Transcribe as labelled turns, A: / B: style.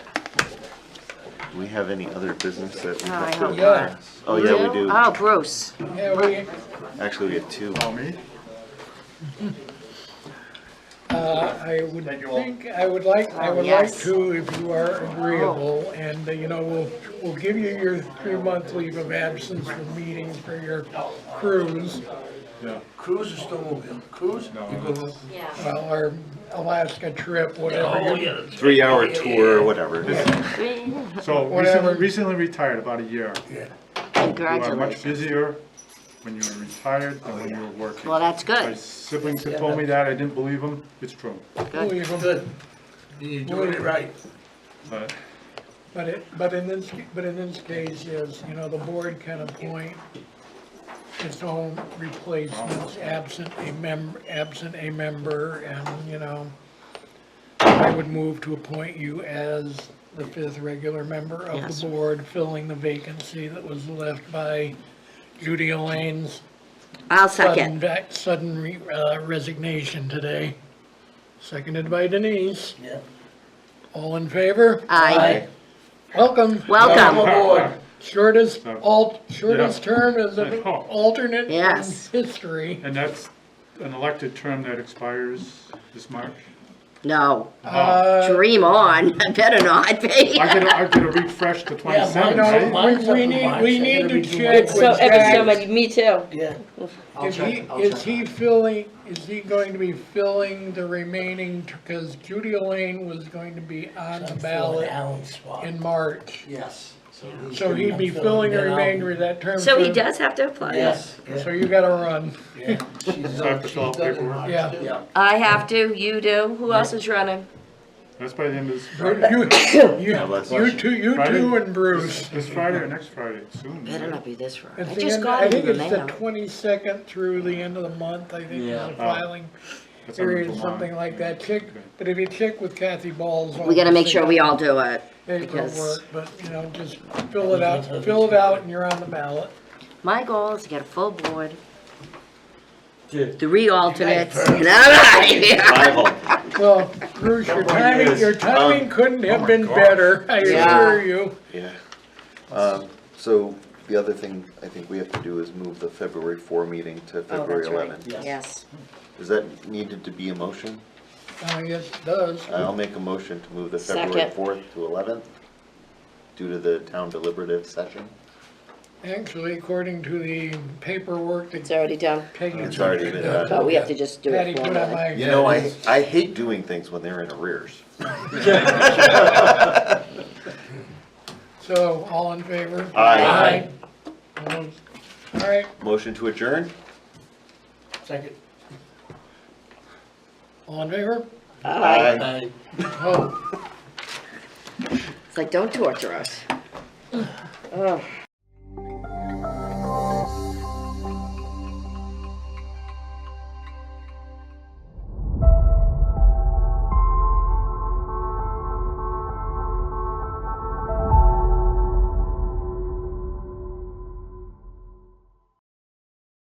A: Do we have any other business that? we
B: No, Uh, I
A: have to
B: hope
C: not.
A: pass? Oh, yeah, we do.
B: Oh, Bruce.
C: Yeah, we,
A: Actually, we have two.
D: me?
C: uh, I would
D: Thank you all.
C: think, I would like, I
B: Oh,
C: would like
B: yes.
C: to, if you are agreeable, and, uh, you know, we'll, we'll give you your three-month leave of absence from meetings for your cruise,
D: Yeah.
E: Cruise or snowmobile? Cruise?
D: No,
E: You go-
D: that's-
C: well, our Alaska trip,
E: Oh,
C: whatever.
E: yeah.
C: you-
E: that's right.
A: Three-hour
E: Yeah, yeah,
A: tour, or
E: yeah.
A: whatever.
D: So
C: Whatever.
D: recently, recently retired, about a year. You are much
B: Congratulations.
D: busier when you're retired than when you were working.
B: Well, that's
D: My
B: good.
D: siblings had told me that, I didn't believe them, it's true.
C: Believe 'em.
E: Good. You're doing it right.
D: But
C: But it, but in this, but in this case is, you know, the board can appoint its own replacements, absent a mem, absent a member, and, you know, I would move to appoint you as the fifth regular member of
B: Yes.
C: the board, filling the vacancy that was left by Judy Elaine's
B: I'll
C: sudden,
B: second.
C: vac- sudden re- uh, resignation today. Seconded by Denise.
E: Yeah.
C: All in favor?
B: Aye.
C: Welcome.
E: Come
C: Oh,
B: Welcome.
E: aboard.
C: Shortest alt, shortest
D: Yeah.
C: term as an
D: Yeah.
C: alternate in
B: Yes.
C: history.
D: And that's an elected term that expires this March.
B: No,
C: Uh,
D: Oh.
B: dream on. Better not be.
D: I get, a- I get a refresh to
E: mine
D: twenty-seven,
E: don't-
D: right?
E: mine-
C: We, we need, we need to check
F: It's so,
C: with
F: it's so
C: Jack.
F: much, me too.
E: Yeah.
C: Is he, is he filling, is he going to be filling the remaining, because Judy Elaine was going to be on the
E: I'm filling
C: ballot
E: Alan's spot.
C: in March.
E: Yes. he's
C: So
E: gonna-
C: he'd be
E: I'm
C: filling the
E: that out.
C: remainder of that term.
B: So he
C: for-
B: does have to apply.
E: Yes.
C: So you gotta run.
E: Yeah. She's
D: I
E: done,
D: have to
E: she's
D: fill out
E: done in
D: paperwork.
E: March,
C: Yeah.
E: too.
C: Yeah.
B: I have to, you do. Who else is running?
D: That's by the end of this Friday.
C: You, you,
A: bless
C: you two, you two and Bruce.
D: This Friday or next Friday, soon.
B: Better
D: right?
B: not be this far. I
C: It's the
B: just
C: end-
B: got it in the
C: I think
B: mail.
C: it's the twenty-second through the end of the month, I think, is the filing
D: That's under
C: period,
D: Vermont.
C: something like that. Check, but if you check with Kathy Ball's.
B: We gotta make sure we all do it.
C: April
B: because-
C: work, but, you know, just fill it out, fill it out and you're on the ballot.
B: My goal is to get a full board.
E: Yeah.
B: Three alternates, and I'm out of here.
A: Rival.
C: Well, Bruce, your timing,
A: um,
C: your timing couldn't
A: oh
C: have been better, I
B: Yeah.
C: assure you.
A: Yeah. Um, so the other thing I think we have to do is move the February four meeting to February
B: Oh, right.
A: eleven.
E: Yes.
B: Yes.
A: Is that needed to be a motion?
C: Uh, yes, it does.
B: Oh.
A: I'll make a motion to move the February
B: Second.
A: fourth to eleventh due to the town deliberative session.
C: Actually, according to the paperwork that
B: It's already done,
C: Peggy.
A: It's already been
B: but
A: done.
B: we have to just do
C: Patty
B: it
C: put on
B: formally.
C: my.
A: You know, I, I hate doing things when they're in arrears.
C: So, all in favor?
A: Aye.
C: All right,
A: Motion to adjourn?
E: Second.
C: all in favor?
B: Aye.
E: Aye.
C: Oh,
B: It's like, don't torture us. Oh.